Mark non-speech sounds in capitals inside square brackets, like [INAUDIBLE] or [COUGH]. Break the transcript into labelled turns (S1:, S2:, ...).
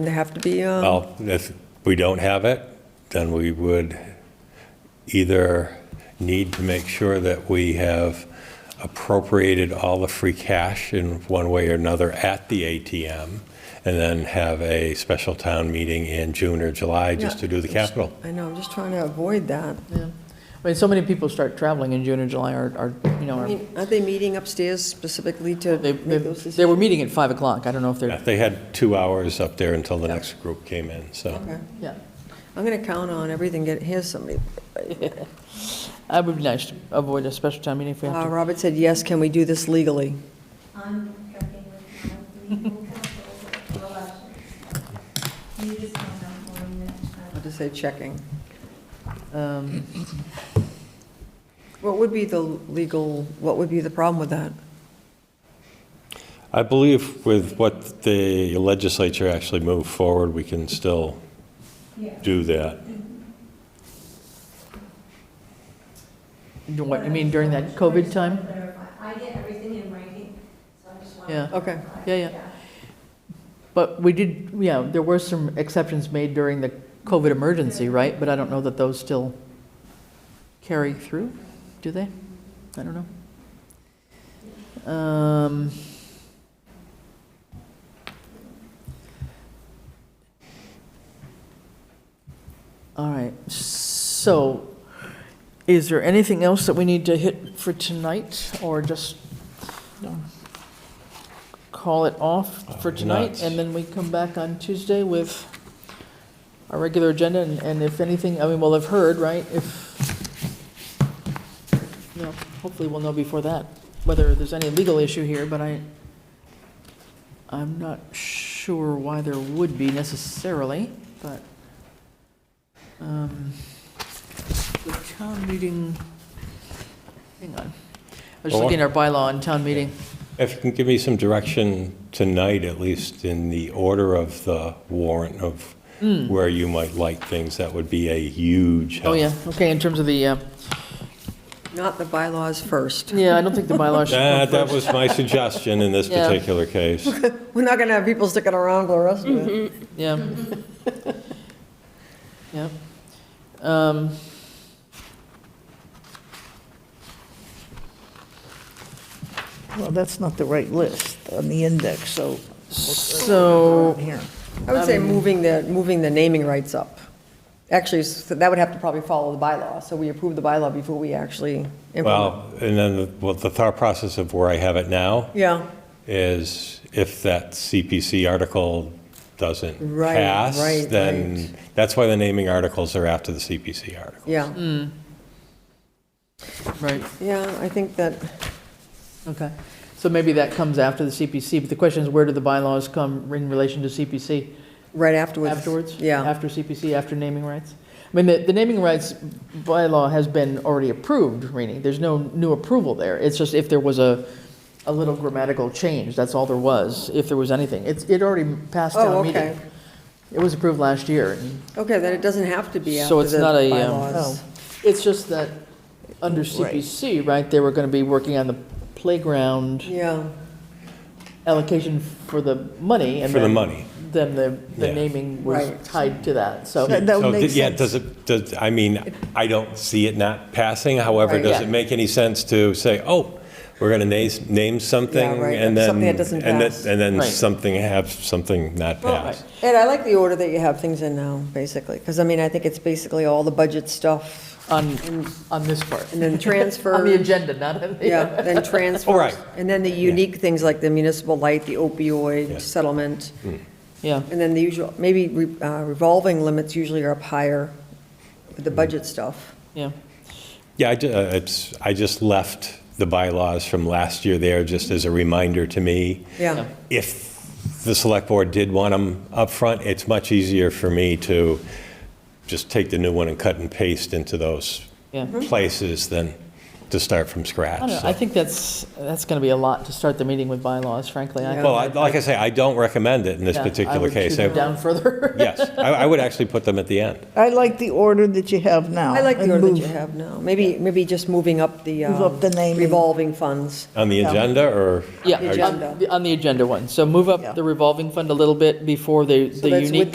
S1: They have to be, um,
S2: Well, if we don't have it, then we would either need to make sure that we have appropriated all the free cash in one way or another at the ATM, and then have a special town meeting in June or July just to do the capital.
S1: I know, I'm just trying to avoid that.
S3: Yeah. I mean, so many people start traveling in June and July or, or, you know,
S1: I
S3: are-
S1: mean, Aren't they meeting upstairs specifically to
S3: they,
S1: make
S3: they
S1: those
S3: they were
S1: decisions?
S3: meeting at 5 o'clock. I don't know if
S2: Yeah,
S3: they're,
S2: They had two hours up there until the next group came in, so.
S1: Okay.
S3: yeah.
S1: I'm going to count on everything, get, here's somebody.
S3: It would be nice to avoid a special town meeting if we
S1: Uh,
S3: have to.
S1: Robert said, yes, can we do this legally?
S4: I'm checking with my legal counsel for elections. You just found out more than that.
S1: I'll just say checking.
S3: Um,
S1: What would be the legal, what would be the problem with that?
S2: I believe with what the legislature actually moved forward, we can still
S4: Yeah.
S2: do that.
S3: do What, you mean during that COVID time?
S4: Clarify. I get everything in writing, so I just want to.
S3: Yeah.
S1: Okay,
S3: Yeah, yeah. But we did, yeah, there were some exceptions made during the COVID emergency, right? But I don't know that those still carry through, do they? I don't know. Um, All right, so is there anything else that we need to hit for tonight or just um, call it off for
S2: Uh,
S3: tonight?
S2: nuts.
S3: And then we come back on Tuesday with our regular agenda and, and if anything, I mean, we'll have heard, right? If, you know, hopefully we'll know before that, whether there's any legal issue here, but I, I'm not sure why there would be necessarily, but. um, The town meeting, hang on. I was just
S2: Well,
S3: looking at our bylaw on town meeting.
S2: If you can give me some direction tonight, at least in the order of the warrant of where you might like things, that would be a huge
S3: Oh,
S2: help.
S3: yeah, okay, in terms of the, uh,
S1: not the bylaws first.
S3: yeah, I don't think the [LAUGHS] bylaw should
S2: That,
S3: come
S2: that
S3: first.
S2: was my suggestion in this
S3: Yeah.
S2: particular case.
S1: We're not going to have people sticking around for the rest of
S3: Mm-hmm.
S1: it.
S3: Yeah. [LAUGHS] Yeah. Um,
S5: Well, that's not the right list on the index, so.
S3: So,
S5: Here.
S1: I would say moving the, moving the naming rights up. Actually, so that would have to probably follow the bylaw, so we approve the bylaw before we actually implement.
S2: Well, and then, the- well, the thought process of where I have it now
S1: Yeah,
S2: is if that CPC article doesn't
S1: Right,
S2: pass,
S1: right,
S2: then, that's why the naming articles are after the CPC article.
S3: Mm.
S1: yeah,
S3: right.
S1: yeah, I think that,
S3: Okay, so maybe that comes after the CPC, but the question is, where do the bylaws come in relation to CPC?
S1: right afterwards.
S3: Afterwards?
S1: Yeah,
S3: After CPC, after naming rights? I mean, the, the naming rights bylaw has been already approved, Rini, there's no new approval there. It's just if there was a, a little grammatical change, that's all there was, if there was anything. It's, it already passed
S1: Oh,
S3: town
S1: okay.
S3: meeting. It was approved last year, and
S1: okay, then it doesn't have to be after
S3: so it's
S1: the
S3: not a, um,
S1: bylaws.
S3: It's just that, under
S5: Right.
S3: CPC, right, they were gonna be working on the playground
S1: Yeah,
S3: allocation for the money, and
S2: For the
S3: then-
S2: money.
S3: Then the, the
S2: Yeah.
S3: naming was
S1: Right.
S3: tied to that, so.
S5: That- that would
S2: So,
S5: make
S2: th- yeah,
S5: sense.
S2: does it, does, I mean, I don't see it not passing, however,
S1: Right.
S2: does
S3: Yeah.
S2: it make any sense to say, oh, we're going to name, name
S1: Yeah,
S2: something,
S1: right,
S2: and then...
S1: something that doesn't
S2: and then-
S1: pass.
S2: And then
S3: Right.
S2: something have, something not
S3: Well,
S2: pass.
S1: and I like the order that you have things in now, basically, because I mean, I think it's basically all the budget stuff,
S3: On, on this part. [LAUGHS]
S1: and then transfer.
S3: On the agenda, not on the.
S1: Yeah, then
S2: [LAUGHS] All
S1: transfers,
S2: right.
S1: and then the unique things like the municipal light, the
S2: Yeah. Mm.
S1: opioid settlement,
S3: Yeah,
S1: and then the usual, maybe re- uh, revolving limits usually are up higher with
S2: Mm.
S1: the budget stuff.
S3: yeah.
S2: Yeah, I, ju- uh, it's, I just left the bylaws from last year there, just as a reminder to me.
S1: Yeah,
S2: If the select board did want them up front, it's much easier for me to just take the new one and cut and paste into those
S3: Yeah.
S2: places than to start from
S3: I
S2: scratch.
S3: don't know,
S2: so.
S3: I think that's, that's gonna be a lot to start the meeting with bylaws, frankly. I-
S2: Well, I- like I say, I don't recommend it in this
S3: yeah,
S2: particular case.
S3: I
S2: I-
S3: would shoot them down
S2: [LAUGHS]
S3: further.
S2: Yes, I I would actually put them at the end.
S5: I like the order that you have now.
S1: I like the
S5: and
S1: order that
S5: move-
S1: you have now. Maybe, maybe just moving up the
S5: Move up
S1: um,
S5: the naming.
S1: revolving funds.
S2: On the agenda, or?
S3: Yeah,
S1: The
S2: or-
S1: agenda.
S3: on the- on the agenda one. So move
S5: Yeah.
S3: up the revolving fund a little bit before the, the
S1: that's with
S3: unique